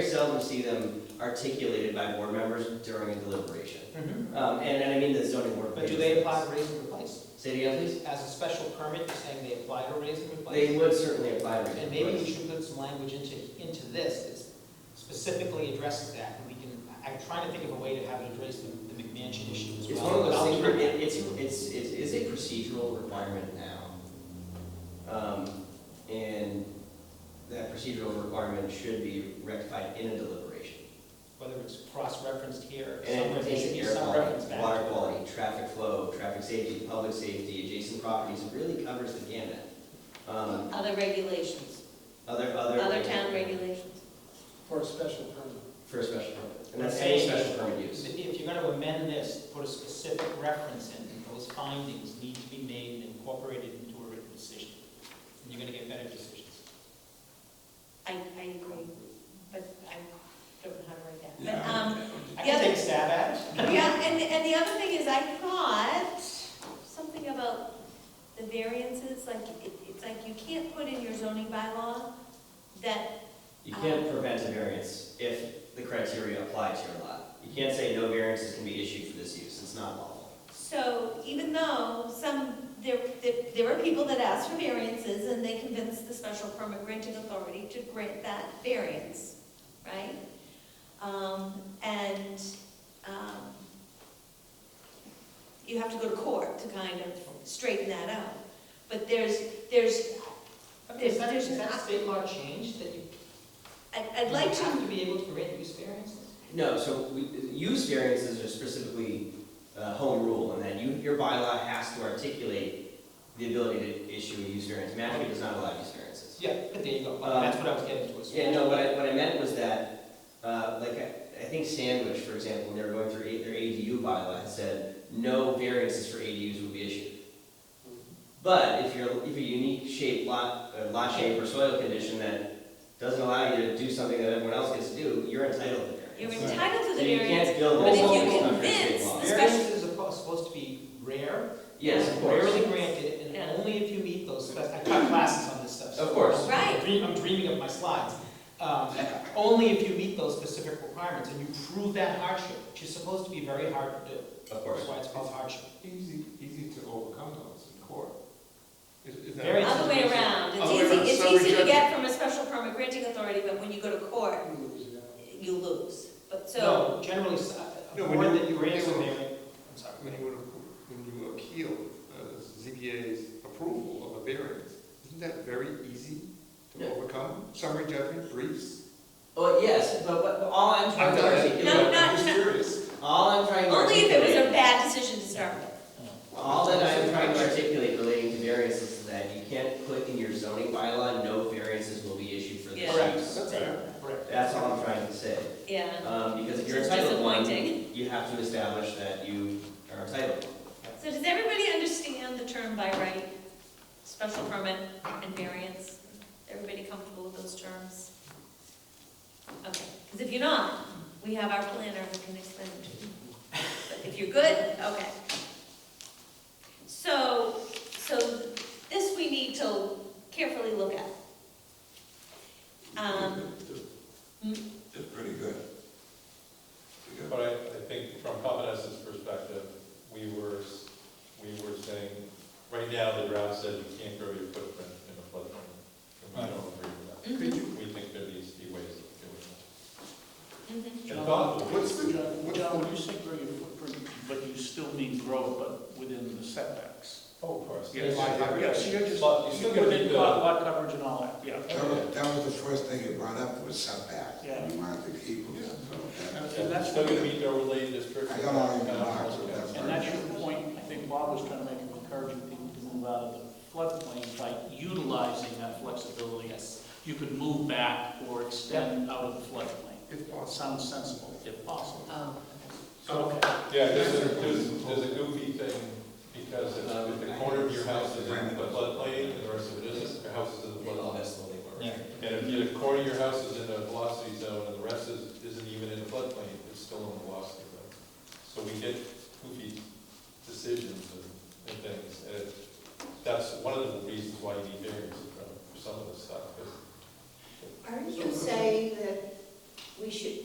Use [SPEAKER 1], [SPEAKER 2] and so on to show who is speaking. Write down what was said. [SPEAKER 1] Very seldom see them articulated by board members during a deliberation. Um, and, and I mean the zoning board.
[SPEAKER 2] Mm-hmm. But do they apply to raise and replace?
[SPEAKER 1] Say it again, please.
[SPEAKER 2] As a special permit, you're saying they apply to raise and replace?
[SPEAKER 1] They would certainly apply. to-
[SPEAKER 2] And maybe we should put some language into, into this that specifically addresses that, and we can, I- I'm trying to think of a way to have it address the the McMansion issue as well.
[SPEAKER 1] It's one of
[SPEAKER 2] but
[SPEAKER 1] those
[SPEAKER 2] I'll
[SPEAKER 1] things,
[SPEAKER 2] leave
[SPEAKER 1] where
[SPEAKER 2] it
[SPEAKER 1] it, it's, it's, it's, it's a procedural requirement now. Um, and that procedural requirement should be rectified in a deliberation.
[SPEAKER 2] Whether it's cross-referenced here, or
[SPEAKER 1] And it
[SPEAKER 2] somewhere, there
[SPEAKER 1] pertains
[SPEAKER 2] should
[SPEAKER 1] to
[SPEAKER 2] be
[SPEAKER 1] air
[SPEAKER 2] some reference
[SPEAKER 1] quality,
[SPEAKER 2] back.
[SPEAKER 1] water
[SPEAKER 2] to it.
[SPEAKER 1] quality, traffic flow, traffic safety, public safety, adjacent properties, it really covers the gamut. Um,
[SPEAKER 3] Other regulations,
[SPEAKER 1] other, other.
[SPEAKER 3] other town regulations.
[SPEAKER 4] For a special permit.
[SPEAKER 1] For a special permit, and that's any special permit use.
[SPEAKER 2] If if you're gonna amend this, put a specific reference in, and those findings need to be made and incorporated into a written decision. And you're gonna get better decisions.
[SPEAKER 3] I, I agree, but I don't know how to write that. But, um,
[SPEAKER 2] I
[SPEAKER 3] Yeah.
[SPEAKER 2] can take a stab at it.
[SPEAKER 3] yeah, and, and the other thing is I thought something about the variances, like, it, it's like you can't put in your zoning bylaw that,
[SPEAKER 1] You can't prevent a variance if the criteria apply to your lot. You can't say no variances can be issued for this use, it's not lawful.
[SPEAKER 3] so even though some, there, there, there are people that ask for variances and they convince the special permit granting authority to grant that variance, right? Um, and, um, you have to go to court to kind of straighten that out. But there's, there's,
[SPEAKER 2] Okay, Is that,
[SPEAKER 3] There's-
[SPEAKER 2] is that state law changed that you?
[SPEAKER 3] I'd, I'd like
[SPEAKER 2] You have
[SPEAKER 3] to,
[SPEAKER 2] to be able to grant use variances?
[SPEAKER 1] No, so we, use variances are specifically, uh, home rule, and then you, your bylaw has to articulate the ability to issue a use variance. Mashpee does not allow use variances.
[SPEAKER 2] Yeah, but there you go,
[SPEAKER 1] Um,
[SPEAKER 2] that's what I was getting to. is-
[SPEAKER 1] Yeah, no, what I, what I meant was that, uh, like, I, I think Sandwich, for example, when they were going through A- their ADU bylaw, had said, no variances for ADUs would be issued. But if you're, if a unique shape lot, uh, lot shape or soil condition that doesn't allow you to do something that everyone else gets to do, you're entitled to variance.
[SPEAKER 3] you're entitled to
[SPEAKER 1] So
[SPEAKER 3] the
[SPEAKER 1] you
[SPEAKER 3] variance.
[SPEAKER 1] can't build.
[SPEAKER 2] but if
[SPEAKER 1] multiple
[SPEAKER 2] you
[SPEAKER 1] structures in
[SPEAKER 3] convince
[SPEAKER 1] law.
[SPEAKER 3] the special-
[SPEAKER 2] Variances are po- supposed to be rare.
[SPEAKER 1] Yes, of course.
[SPEAKER 2] Rarely granted, and
[SPEAKER 3] Yeah.
[SPEAKER 2] only if you meet those, spec- I taught classes on this stuff. so
[SPEAKER 1] Of course.
[SPEAKER 2] I'm
[SPEAKER 3] Right.
[SPEAKER 2] dream- I'm dreaming of my slides. Um, Only if you meet those specific requirements and you prove that hardship, which is supposed to be very hard to do.
[SPEAKER 1] Of
[SPEAKER 2] That's
[SPEAKER 1] course.
[SPEAKER 2] why it's called hardship.
[SPEAKER 4] Easy, easy to overcome those in court. Is- is that-
[SPEAKER 2] Very-
[SPEAKER 3] Other way around,
[SPEAKER 4] Other way around,
[SPEAKER 3] it's easy,
[SPEAKER 4] summary
[SPEAKER 3] it's easy to
[SPEAKER 4] judgment.
[SPEAKER 3] get from a special permit granting authority, but when you go to court, you lose. But so,
[SPEAKER 2] No, generally, s- uh, a
[SPEAKER 4] No, when
[SPEAKER 2] board
[SPEAKER 4] you-
[SPEAKER 2] that you grant a
[SPEAKER 4] when you-
[SPEAKER 2] variance, I'm sorry.
[SPEAKER 4] When you, would- when you appeal uh, ZBA's approval of a variance, isn't that very easy
[SPEAKER 1] Yeah.
[SPEAKER 4] to overcome? Summary judgment, briefs?
[SPEAKER 1] Well, yes, but what, all I'm trying
[SPEAKER 4] I'm
[SPEAKER 1] to
[SPEAKER 4] not-
[SPEAKER 1] articulate.
[SPEAKER 3] No, no.
[SPEAKER 4] I'm just curious.
[SPEAKER 1] All I'm trying to
[SPEAKER 3] only if it was
[SPEAKER 1] articulate-
[SPEAKER 3] a bad decision to start with.
[SPEAKER 1] All that I'm trying to articulate relating to variances is that you can't put in your zoning bylaw, no variances will be issued for this
[SPEAKER 3] Yeah.
[SPEAKER 1] use.
[SPEAKER 4] That's fair.
[SPEAKER 2] Correct.
[SPEAKER 1] That's all I'm trying to say,
[SPEAKER 3] Yeah,
[SPEAKER 1] um, because if you're
[SPEAKER 3] It's
[SPEAKER 1] entitled to one,
[SPEAKER 3] disappointing.
[SPEAKER 1] you have to establish that you are entitled.
[SPEAKER 3] So does everybody understand the term by right, special permit and variance? Everybody comfortable with those terms? Okay, because if you're not, we have our planner who can explain it to you. But if you're good, okay. So, so this we need to carefully look at. Um,
[SPEAKER 5] It's pretty good. Pretty good.
[SPEAKER 6] But I, I think from Covenant's perspective, we were, s- we were saying, right now, the draft says you can't grow your footprint in a floodplain. And we don't agree with
[SPEAKER 3] mhm,
[SPEAKER 6] that. We think there needs to be ways
[SPEAKER 3] mhm.
[SPEAKER 6] of doing it. And thoughtful
[SPEAKER 4] What's
[SPEAKER 6] ways.
[SPEAKER 4] the, what's
[SPEAKER 7] John,
[SPEAKER 4] the,
[SPEAKER 7] when you say grow your footprint, but you still mean grow, but within the setbacks.
[SPEAKER 6] Oh, of course.
[SPEAKER 7] Yes,
[SPEAKER 6] Yeah.
[SPEAKER 7] yes, you're just,
[SPEAKER 6] But you still gotta
[SPEAKER 7] within
[SPEAKER 6] meet the-
[SPEAKER 7] lot lot coverage and all that, yeah.
[SPEAKER 5] That was, that was the first thing you brought up was setback.
[SPEAKER 7] Yeah.
[SPEAKER 5] You wanted to keep them, so that-
[SPEAKER 7] And-
[SPEAKER 6] Yeah,
[SPEAKER 7] And that's,
[SPEAKER 6] Still gonna meet the overlay district.
[SPEAKER 5] I don't know any remarks of that.
[SPEAKER 7] and that's your point, I think Bob was trying to make, of encouraging people to move out of the floodplain by utilizing that flexibility. Yes. You could move back or extend out of the floodplain.
[SPEAKER 4] if
[SPEAKER 7] Well, it
[SPEAKER 4] possible,
[SPEAKER 7] sounds sensible, if possible.
[SPEAKER 2] Um,
[SPEAKER 7] Okay.
[SPEAKER 6] Yeah, there's a, there's, there's a goofy thing, because if if the corner of your house is in the floodplain, and the rest of it isn't, your house is in the floodplain.
[SPEAKER 2] yeah.
[SPEAKER 6] And if the corner of your house is in a velocity zone and the rest is, isn't even in the floodplain, it's still in the velocity zone. So we get goofy decisions and, and things, and it- that's one of the reasons why you need variance for some of this stuff, 'cause
[SPEAKER 8] Aren't you saying that we should,